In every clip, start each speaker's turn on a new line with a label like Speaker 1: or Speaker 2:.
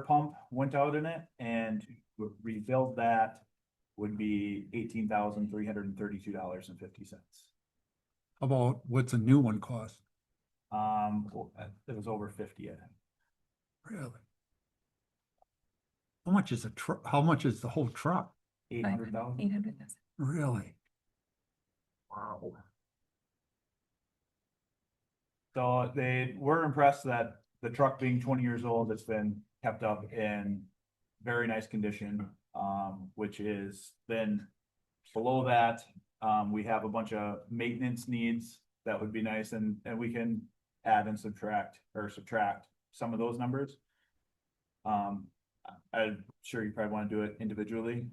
Speaker 1: pump went out in it and to rebuild that would be eighteen thousand three hundred and thirty-two dollars and fifty cents.
Speaker 2: How About what's a new one cost,
Speaker 1: Um, well, uh, it was over fifty, I think.
Speaker 2: really? How much is a truck, how much is the whole truck,
Speaker 1: eight hundred dollars.
Speaker 3: Eight hundred thousand.
Speaker 2: really?
Speaker 1: Wow. So they were impressed that the truck being twenty years old, it's been kept up in very nice condition. Um, which is then below that, um, we have a bunch of maintenance needs that would be nice and, and we can add and subtract or subtract some of those numbers. Um, I- I'm sure you probably want to do it individually.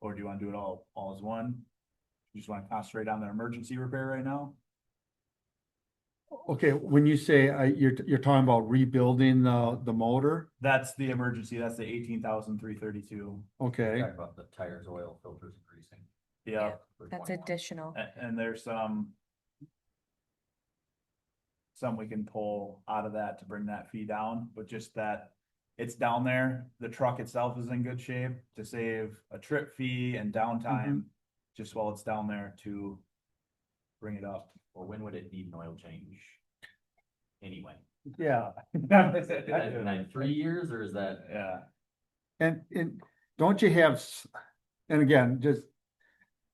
Speaker 1: Or do you want to do it all, all as one? You just want to concentrate on the emergency repair right now?
Speaker 2: Okay, when you say, uh, you're, you're talking about rebuilding the, the motor,
Speaker 1: That's the emergency, that's the eighteen thousand three thirty-two,
Speaker 2: okay,
Speaker 4: Talking about the tires, oil, filters, and greasing.
Speaker 1: yeah,
Speaker 3: Yeah.
Speaker 4: for
Speaker 3: That's
Speaker 4: 21.
Speaker 3: additional.
Speaker 1: and, and there's some. Some we can pull out of that to bring that fee down, but just that. It's down there, the truck itself is in good shape to save a trip fee and downtime, just while it's down there to. Bring it up.
Speaker 4: Well, when would it need an oil change? Anyway,
Speaker 2: yeah.
Speaker 4: is that in like three years or is that?
Speaker 1: Yeah,
Speaker 2: And, and don't you have, s- and again, just,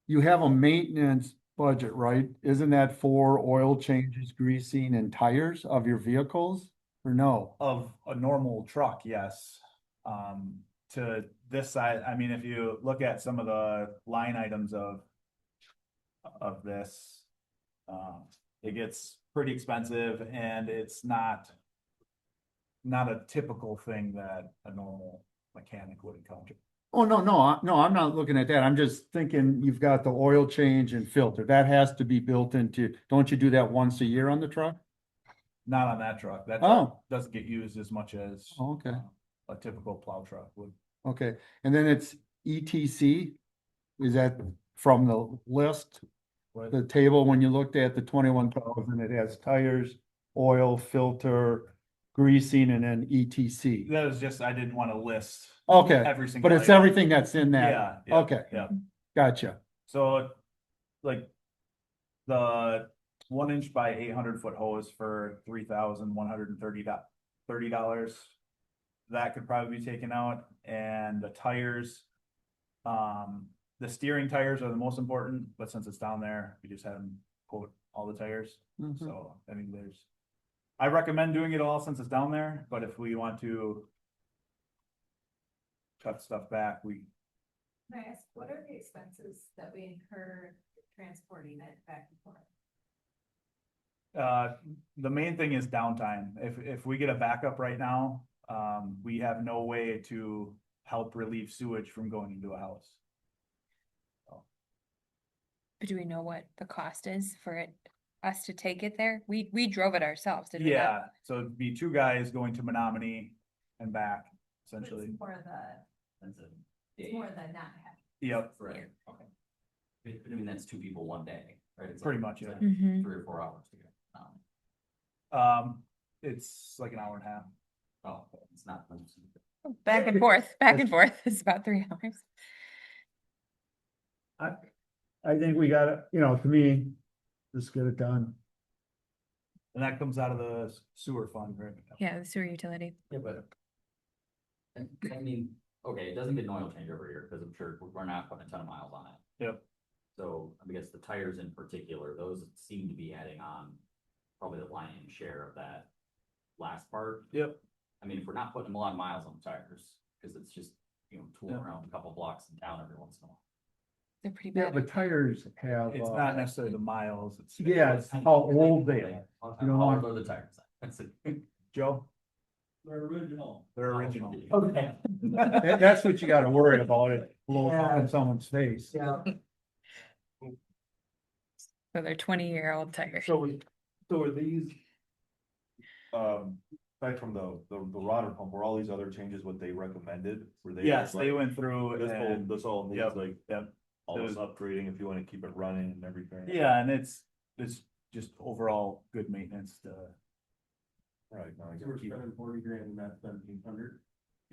Speaker 2: you have a maintenance budget, right? Isn't that for oil changes, greasing and tires of your vehicles? Or no?
Speaker 1: of a normal truck, yes. Um, to this side, I mean, if you look at some of the line items of of this, um, it gets pretty expensive and it's not not a typical thing that a normal mechanic would encounter.
Speaker 2: Oh, no, no, I- no, I'm not looking at that. I'm just thinking you've got the oil change and filter. That has to be built into, don't you do that once a year on the truck?
Speaker 1: Not on that truck. That truck
Speaker 2: Oh,
Speaker 1: doesn't get used as much as
Speaker 2: okay,
Speaker 1: um, a typical plow truck would.
Speaker 2: okay. And then it's ETC? Is that from the list? the table, when you looked at the twenty-one thousand, it has tires, oil, filter, greasing, and then ETC.
Speaker 1: That was just, I didn't want to list
Speaker 2: Okay,
Speaker 1: every single.
Speaker 2: but it's
Speaker 1: item.
Speaker 2: everything that's in that.
Speaker 1: Yeah, yeah.
Speaker 2: Okay.
Speaker 1: yeah.
Speaker 2: Gotcha.
Speaker 1: So, like, the one inch by eight hundred foot hose for three thousand one hundred and thirty dollars. That could probably be taken out, and the tires. Um, the steering tires are the most important, but since it's down there, we just had them quote all the tires,
Speaker 2: Mhm.
Speaker 1: so, I mean, there's. I recommend doing it all since it's down there, but if we want to. Cut stuff back, we,
Speaker 5: Can I ask, what are the expenses that we incur transporting it back and forth?
Speaker 1: Uh, the main thing is downtime. If, if we get a backup right now, um, we have no way to help relieve sewage from going into a house.
Speaker 3: But do we know what the cost is for it, us to take it there? We, we drove it ourselves, did we not?
Speaker 1: Yeah, so it'd be two guys going to Menominee and back,
Speaker 5: It's
Speaker 1: essentially.
Speaker 5: More the,
Speaker 4: That's a
Speaker 5: it's
Speaker 4: day, Oh,
Speaker 5: more the not having.
Speaker 1: Yep,
Speaker 4: right, okay. But- but I mean, that's two people one day, right? It's
Speaker 1: Pretty much,
Speaker 4: like-
Speaker 1: yeah.
Speaker 4: it's like
Speaker 5: Mm-hmm.
Speaker 3: Mhm.
Speaker 4: Three or four hours to get, um,
Speaker 1: um, it's like an hour and a half.
Speaker 4: oh, it's not.
Speaker 3: Back and forth, back and forth. It's about three hours.
Speaker 2: I think we gotta, you know, to me, just get it done.
Speaker 1: And that comes out of the sewer fund, right?
Speaker 3: Yeah, the sewer utility.
Speaker 4: Yeah, but. And, I mean, okay, it doesn't get an oil change every year, because I'm sure we're- we're not putting a ton of miles on it.
Speaker 1: Yep.
Speaker 4: So I guess the tires in particular, those seem to be adding on probably the lion's share of that last part.
Speaker 1: Yep.
Speaker 4: I mean, if we're not putting a lot of miles on the tires, because it's just, you know, tooling
Speaker 1: Yep.
Speaker 4: around a couple blocks and down every once in a while.
Speaker 3: They're pretty
Speaker 2: Yeah,
Speaker 3: bad.
Speaker 2: but tires have,
Speaker 1: It's not
Speaker 2: uh,
Speaker 1: necessarily the miles, it's.
Speaker 2: Yeah, it's how old they are.
Speaker 4: How
Speaker 2: You don't
Speaker 4: how
Speaker 2: want-
Speaker 4: old are the tires? That's it.
Speaker 1: Joe,
Speaker 4: They're original.
Speaker 1: they're original.
Speaker 4: Okay.
Speaker 2: that- that's what you gotta worry about it, blow up in someone's face.
Speaker 6: Yeah,
Speaker 3: So they're twenty-year-old tires.
Speaker 6: so, we- so are these? Um, aside from the, the, the rotor pump, were all these other changes what they recommended? Were they?
Speaker 1: Yes,
Speaker 6: like,
Speaker 1: they went through
Speaker 6: This whole,
Speaker 1: and,
Speaker 6: this all needs
Speaker 1: Yep,
Speaker 6: like,
Speaker 1: yep.
Speaker 6: all this
Speaker 1: Those-
Speaker 6: upgrading if you wanna keep it running and everything.
Speaker 1: yeah, and it's, it's just overall good maintenance to.
Speaker 6: Right. now I
Speaker 7: So we're
Speaker 6: keep-
Speaker 7: spending forty grand and that's seventeen hundred.